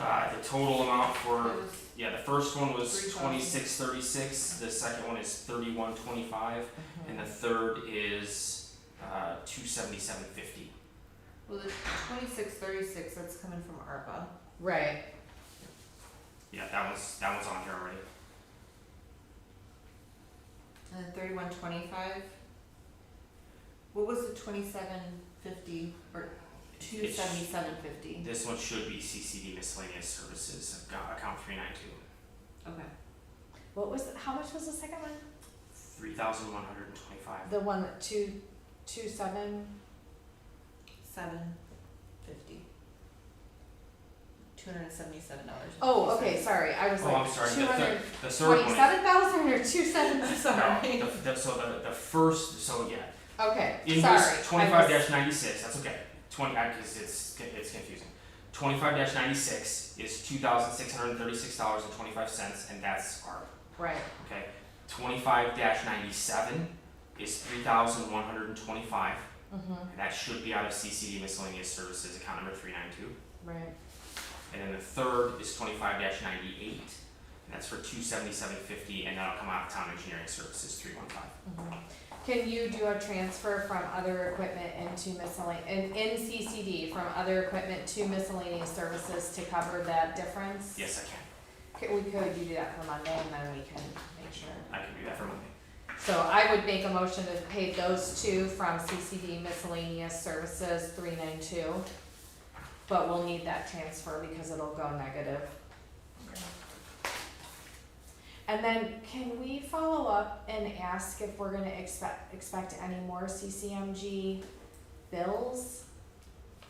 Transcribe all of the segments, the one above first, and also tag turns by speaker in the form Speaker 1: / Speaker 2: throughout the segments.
Speaker 1: Uh, the total amount for,
Speaker 2: It was
Speaker 1: yeah, the first one was
Speaker 2: Three thousand.
Speaker 1: twenty-six thirty-six, the second one is thirty-one twenty-five,
Speaker 3: Mm-hmm.
Speaker 1: and the third is, uh, two seventy-seven fifty.
Speaker 2: Well, the twenty-six thirty-six, that's coming from ARPA.
Speaker 3: Right,
Speaker 1: Yeah, that was, that was on here already.
Speaker 2: And then thirty-one twenty-five. What was the twenty-seven fifty or two
Speaker 1: It's-
Speaker 2: seventy-seven fifty?
Speaker 1: This one should be CCD miscellaneous services, account, account three nine two,
Speaker 2: Okay.
Speaker 3: what was, how much was the second one?
Speaker 1: three thousand one hundred and twenty-five.
Speaker 3: The one, that two, two seven,
Speaker 2: Seven fifty. Two hundred and seventy-seven dollars.
Speaker 3: oh, okay, sorry, I was
Speaker 1: Oh, I'm
Speaker 3: like,
Speaker 1: sorry,
Speaker 3: two
Speaker 1: the
Speaker 3: hundred
Speaker 1: third, the third one is,
Speaker 3: twenty-seven thousand or two seven,
Speaker 1: no,
Speaker 3: sorry,
Speaker 1: the, the, so the, the first, so yeah,
Speaker 3: okay, sorry. I
Speaker 1: Invoice twenty-five
Speaker 3: was-
Speaker 1: dash ninety-six, that's okay, twenty, because it's, con- it's confusing. Twenty-five dash ninety-six is two thousand six hundred and thirty-six dollars and twenty-five cents, and that's our,
Speaker 3: Right,
Speaker 1: okay? Twenty-five dash ninety-seven is three thousand one hundred and twenty-five,
Speaker 3: mm-hmm,
Speaker 1: and that should be out of CCD miscellaneous services, account number three nine two.
Speaker 3: right,
Speaker 1: And then the third is twenty-five dash ninety-eight, and that's for two seventy-seven fifty, and that'll come out of town engineering services, three one five.
Speaker 3: mm-hmm. Can you do a transfer from other equipment into miscellaneous, in, in CCD, from other equipment to miscellaneous services to cover that difference?
Speaker 1: Yes, I
Speaker 3: Could, we could, you do that for Monday and then we can make sure.
Speaker 1: can, I can do that for Monday.
Speaker 3: So I would make a motion to pay those two from CCD miscellaneous services three nine two. But we'll need that transfer because it'll go negative. And then can we follow up and ask if we're gonna expect, expect any more CCMG bills?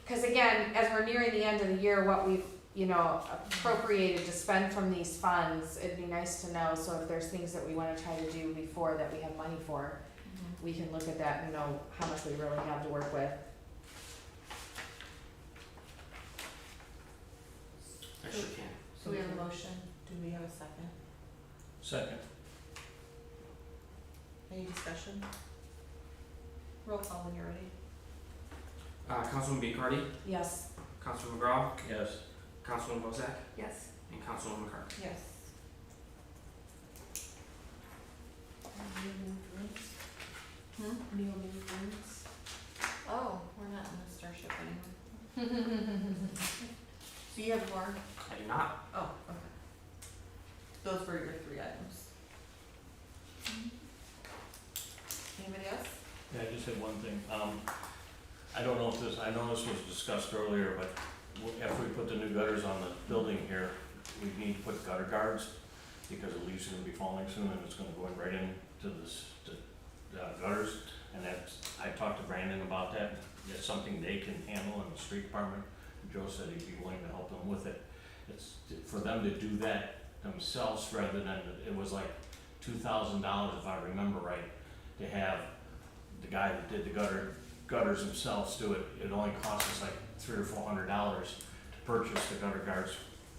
Speaker 3: Cause again, as we're nearing the end of the year, what we've, you know, appropriated to spend from these funds, it'd be nice to know, so if there's things that we wanna try to do before that we have money for, we can look at that and know how much we really have to work with.
Speaker 1: I sure can.
Speaker 2: So we have a motion. Do we have a second?
Speaker 4: Second.
Speaker 2: Any discussion? Roll call when you're ready.
Speaker 1: Uh, Councilwoman Bicardi,
Speaker 3: Yes,
Speaker 1: Councilman McGraw,
Speaker 4: Yes.
Speaker 1: Councilwoman Bozak,
Speaker 2: Yes.
Speaker 1: and Councilwoman McCarthy.
Speaker 2: Yes. Hmm? Oh, we're not in the starship anymore. So you have more?
Speaker 1: I do not.
Speaker 2: Oh, okay. Those were your three items. Anybody else?
Speaker 4: Yeah, I just had one thing. Um, I don't know if this, I know this was discussed earlier, but w- after we put the new gutters on the building here, we need to put gutter guards because the leaves are gonna be falling soon and it's gonna go in right into this, the uh, gutters. And that's, I talked to Brandon about that. That's something they can handle in the street department. Joe said he'd be willing to help them with it. It's, for them to do that themselves rather than, it was like two thousand dollars if I remember right, to have the guy that did the gutter, gutters themselves do it, it only cost us like three or four hundred dollars to purchase the gutter guards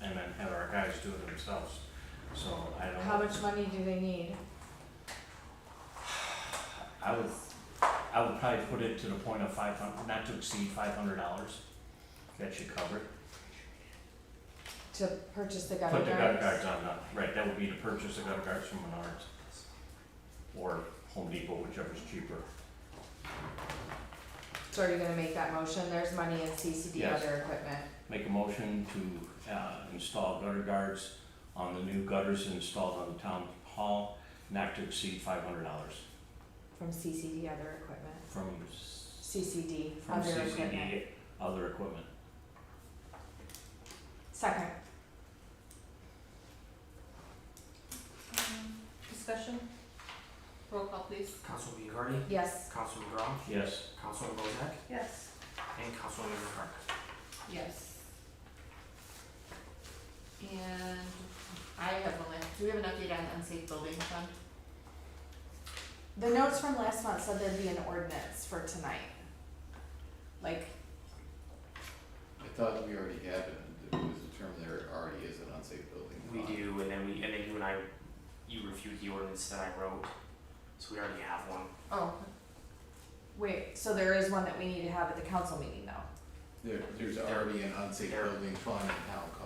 Speaker 4: and then have our guys do it themselves. So I don't.
Speaker 3: how much money do they need?
Speaker 4: I would, I would probably put it to the point of five hundred, not to exceed five hundred dollars. That should cover it.
Speaker 3: To purchase the gutter
Speaker 4: Put the gutter
Speaker 3: guards?
Speaker 4: guards on, uh, right, that would be to purchase the gutter guards from Menards. Or Home Depot, whichever's cheaper.
Speaker 3: So are you gonna make that motion? There's money in CCD
Speaker 4: Yes.
Speaker 3: other equipment.
Speaker 4: Make a motion to, uh, install gutter guards on the new gutters installed on the town hall, not to exceed five hundred dollars
Speaker 3: From CCD other equipment,
Speaker 4: from, s-
Speaker 3: CCD
Speaker 4: from
Speaker 3: other equipment.
Speaker 4: CCD, other equipment.
Speaker 3: Second,
Speaker 2: Um, Discussion? Roll call please.
Speaker 1: Councilwoman Bicardi,
Speaker 3: yes,
Speaker 1: Councilman McGraw,
Speaker 4: Yes.
Speaker 1: Councilwoman Bozak,
Speaker 2: Yes.
Speaker 1: and Councilwoman McCarthy.
Speaker 2: Yes. And I have one, last- do we have an update on unsafe building fund?
Speaker 3: the notes from last month said there'd be an ordinance for tonight. Like,
Speaker 5: I thought we already had it, it was a term there already is an unsafe building.
Speaker 1: We do, and then we, and then you and I, you reviewed the ordinance that I wrote, so we already have one.
Speaker 2: Oh,
Speaker 3: wait, so there is one that we need to have at the council meeting though?
Speaker 5: There, there's already an unsafe
Speaker 1: There.
Speaker 5: building fund in town